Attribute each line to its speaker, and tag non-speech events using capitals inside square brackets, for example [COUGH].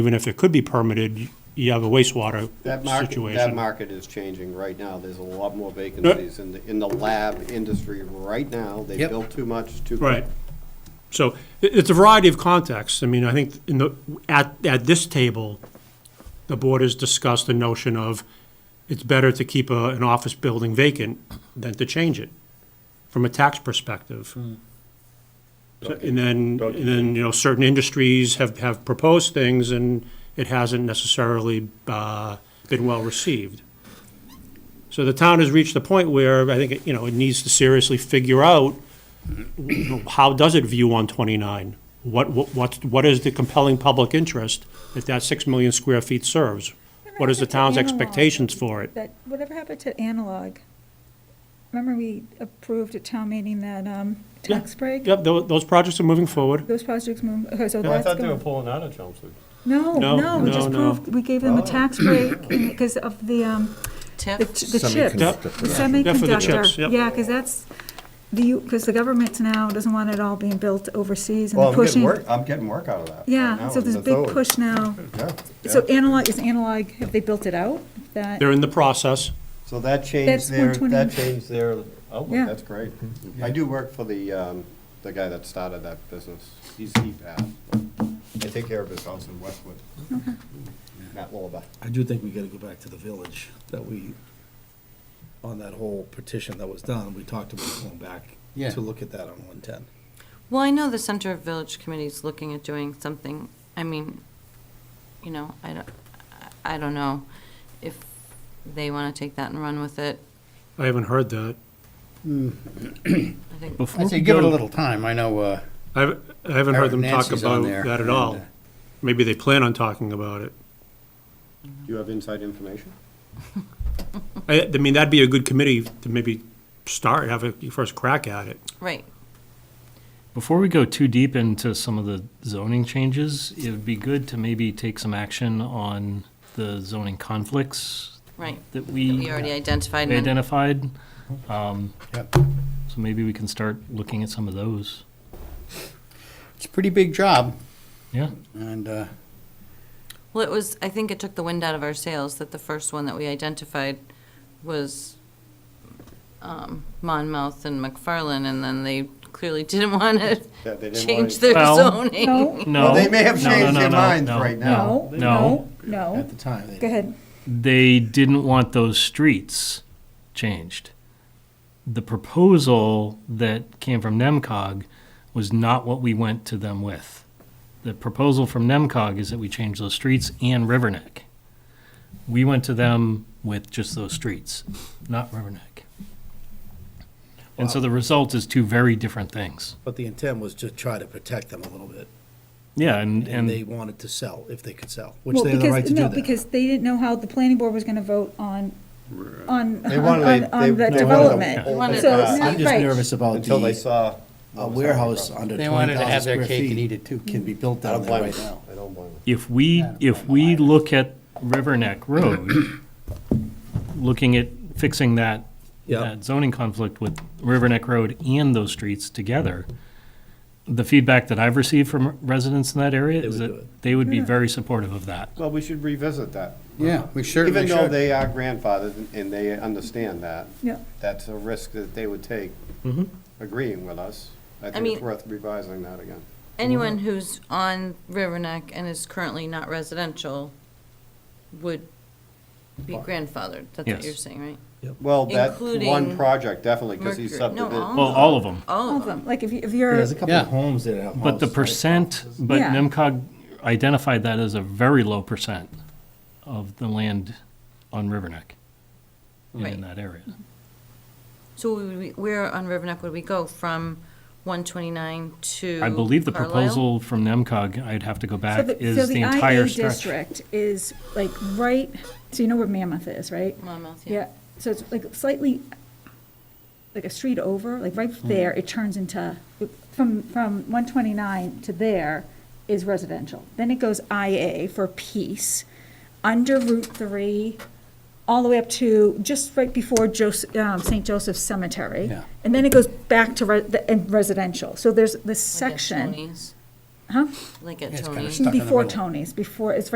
Speaker 1: even if it could be permitted, you- you have a wastewater
Speaker 2: That market, that
Speaker 1: situation.
Speaker 2: market is changing right now. There's a lot more vacancies in the, in the lab industry right now. They
Speaker 3: Yep.
Speaker 2: built too much, too.
Speaker 1: Right. So it, it's a variety of contexts. I mean, I think in the, at, at this table, the board has discussed the notion of it's better to keep a, an office building vacant than to change it from a tax perspective. So- And then, and then, you know, certain industries have, have proposed things and it hasn't necessarily, uh, been well received. So the town has reached the point where I think, it, you know, it needs to seriously figure out you know, how does it view 129? What, what, what- what is the compelling public interest if that 6 million square feet serves? What is the town's expectations for it?
Speaker 4: That, whatever happened to analog? Remember we approved at town meeting that, um, tax break?
Speaker 1: Yep, tho- those projects are moving forward.
Speaker 4: Those projects move, okay, so
Speaker 5: I
Speaker 4: that's
Speaker 5: thought they were
Speaker 4: going.
Speaker 5: pulling out of Chelmsford.
Speaker 4: No,
Speaker 1: No,
Speaker 4: no, we
Speaker 1: no,
Speaker 4: just
Speaker 1: no. Oh.
Speaker 4: proved, we gave them a tax break [COUGHS] because of the, um, the
Speaker 6: TIF.
Speaker 4: ch- the chips.
Speaker 1: Yep.
Speaker 4: The
Speaker 1: Yeah, for the chips,
Speaker 4: Semiconductor,
Speaker 1: yep.
Speaker 4: yeah, because that's, do you, because the government now doesn't want it all being built overseas
Speaker 2: Well,
Speaker 4: and
Speaker 2: I'm getting
Speaker 4: pushing.
Speaker 2: work, I'm getting work out of that. right
Speaker 4: Yeah,
Speaker 2: now
Speaker 4: so
Speaker 2: in
Speaker 4: there's a big
Speaker 2: Methuen.
Speaker 4: push now.
Speaker 2: Yeah,
Speaker 4: So
Speaker 2: yeah.
Speaker 4: analog, is analog, have they built it out? That,
Speaker 1: They're in the process.
Speaker 2: So that changed
Speaker 4: That's
Speaker 2: their,
Speaker 4: 120.
Speaker 2: that changed their outlook.
Speaker 4: Yeah.
Speaker 2: That's great. I do work for the, um, the guy that started that business. He's CPAP. I take care of his house in Westwood. Matt Lullaby.
Speaker 3: I do think we gotta go back to the village that we, on that whole petition that was done, we talked about going back
Speaker 7: Yeah.
Speaker 3: to look at that on one ten.
Speaker 6: Well, I know the Center of Village Committee's looking at doing something, I mean, you know, I don't, I I don't know if they want to take that and run with it.
Speaker 1: I haven't heard that.
Speaker 6: I think
Speaker 7: I
Speaker 1: Before
Speaker 7: say give it a little time, I know, uh,
Speaker 1: I haven't I haven't heard them talk
Speaker 7: Nancy's on
Speaker 1: about
Speaker 7: there,
Speaker 1: that at
Speaker 7: and,
Speaker 1: all.
Speaker 7: uh,
Speaker 1: Maybe they plan on talking about it.
Speaker 2: Do you have inside information?
Speaker 1: I, I mean, that'd be a good committee to maybe start, have a first crack at it.
Speaker 6: Right,
Speaker 8: Before we go too deep into some of the zoning changes, it would be good to maybe take some action on the zoning conflicts
Speaker 6: right.
Speaker 8: that
Speaker 6: We
Speaker 8: we
Speaker 6: already identified them.
Speaker 8: identified. Um,
Speaker 7: Yep.
Speaker 8: So maybe we can start looking at some of those.
Speaker 7: it's a pretty big job,
Speaker 8: Yeah,
Speaker 7: and, uh,
Speaker 6: Well, it was, I think it took the wind out of our sails that the first one that we identified was um, Monmouth and McFarland, and then they clearly didn't want
Speaker 2: Yeah,
Speaker 6: to
Speaker 2: they didn't want
Speaker 6: change
Speaker 2: it.
Speaker 6: their
Speaker 8: Well-
Speaker 6: zoning.
Speaker 4: no,
Speaker 8: no.
Speaker 2: Well, they may have
Speaker 8: no, no,
Speaker 2: changed
Speaker 8: no,
Speaker 2: their
Speaker 8: no,
Speaker 2: minds
Speaker 8: no,
Speaker 2: right now.
Speaker 4: no,
Speaker 8: No.
Speaker 4: no, no.
Speaker 7: at the time,
Speaker 4: Go
Speaker 7: they-
Speaker 4: ahead.
Speaker 8: they didn't want those streets changed. The proposal that came from NEMCOG was not what we went to them with. The proposal from NEMCOG is that we change those streets and Riverneck. We went to them with just those streets, not Riverneck. And so the result is two very different things.
Speaker 3: But the intent was to try to protect them a little bit,
Speaker 8: Yeah, and,
Speaker 3: and they
Speaker 8: and
Speaker 3: wanted to sell if they could sell, which
Speaker 4: Well,
Speaker 3: they had the
Speaker 4: because
Speaker 3: right to do
Speaker 4: No,
Speaker 3: that.
Speaker 4: because they didn't know how the planning board was gonna vote on, on,
Speaker 2: They wanted- they-
Speaker 4: on, on the
Speaker 2: they wanted
Speaker 4: development.
Speaker 2: to open
Speaker 6: wanted to
Speaker 2: it
Speaker 4: So-
Speaker 2: up
Speaker 3: Uh, I'm just
Speaker 4: Right.
Speaker 3: nervous about
Speaker 2: Until they
Speaker 3: the
Speaker 2: saw.
Speaker 3: a warehouse under
Speaker 7: they
Speaker 3: twenty
Speaker 7: wanted to
Speaker 3: thousand
Speaker 7: have
Speaker 3: square
Speaker 7: their cake and
Speaker 3: feet
Speaker 7: eat it too.
Speaker 3: can be built
Speaker 2: I
Speaker 3: down
Speaker 2: don't
Speaker 3: there
Speaker 2: blame
Speaker 3: right
Speaker 2: them.
Speaker 3: now.
Speaker 2: I don't blame them.
Speaker 8: if we, if we look at Riverneck Road, looking at fixing that
Speaker 3: Yeah,
Speaker 8: that zoning conflict with Riverneck Road and those streets together, the feedback that I've received from residents in that area
Speaker 3: They
Speaker 8: is
Speaker 3: would do
Speaker 8: that they would be very supportive of that.
Speaker 2: Well, we should revisit that.
Speaker 7: Yeah, we
Speaker 2: Even
Speaker 7: certainly
Speaker 2: though
Speaker 7: should.
Speaker 2: they are grandfathered and they understand that,
Speaker 4: Yeah.
Speaker 2: that's a risk that they would take
Speaker 7: Mm-hmm.
Speaker 2: agreeing with us. I think
Speaker 6: mean-
Speaker 2: it's worth revising that again.
Speaker 6: Anyone
Speaker 8: Mm-hmm.
Speaker 6: who's on Riverneck and is currently not residential would be grandfathered, that's what
Speaker 8: Yes.
Speaker 6: you're saying, right?
Speaker 2: Well, that one
Speaker 6: Including
Speaker 2: project definitely, because he's
Speaker 6: Mercury- no,
Speaker 2: subdivided.
Speaker 8: Well, all of them.
Speaker 6: All
Speaker 4: All
Speaker 6: of
Speaker 4: of
Speaker 6: them.
Speaker 4: them, like if you, if you're.
Speaker 3: there's a couple
Speaker 7: Yeah.
Speaker 3: of homes that have.
Speaker 8: But the
Speaker 3: houses, right?
Speaker 8: percent, but
Speaker 4: Yeah.
Speaker 8: NIMCOG identified that as a very low percent of the land on Riverneck and
Speaker 6: Right.
Speaker 8: in that area.
Speaker 6: So we- we- where on Riverneck would we go, from 129 to
Speaker 8: I believe the
Speaker 6: Carlisle?
Speaker 8: proposal from NIMCOG, I'd have to go
Speaker 4: So
Speaker 8: back,
Speaker 4: the-
Speaker 8: is the entire
Speaker 4: So the IA
Speaker 8: stretch.
Speaker 4: district is like right, so you know where Mammoth is, right?
Speaker 6: Monmouth, yeah.
Speaker 4: Yeah, so it's like slightly, like a street over, like right
Speaker 7: Mm.
Speaker 4: there, it turns into, from, from 129 to there is residential. Then it goes IA for peace, under Route 3, all the way up to just right before Jos- um, St. Joseph's Cemetery.
Speaker 7: Yeah.
Speaker 4: And then it goes back to re- the- and residential. So there's this
Speaker 6: Like at
Speaker 4: section.
Speaker 6: Tony's.
Speaker 4: Huh?
Speaker 6: Like at
Speaker 7: It's kinda
Speaker 6: Tony's.
Speaker 7: Stuck in the
Speaker 4: Before
Speaker 7: middle.
Speaker 4: Tony's, before, it's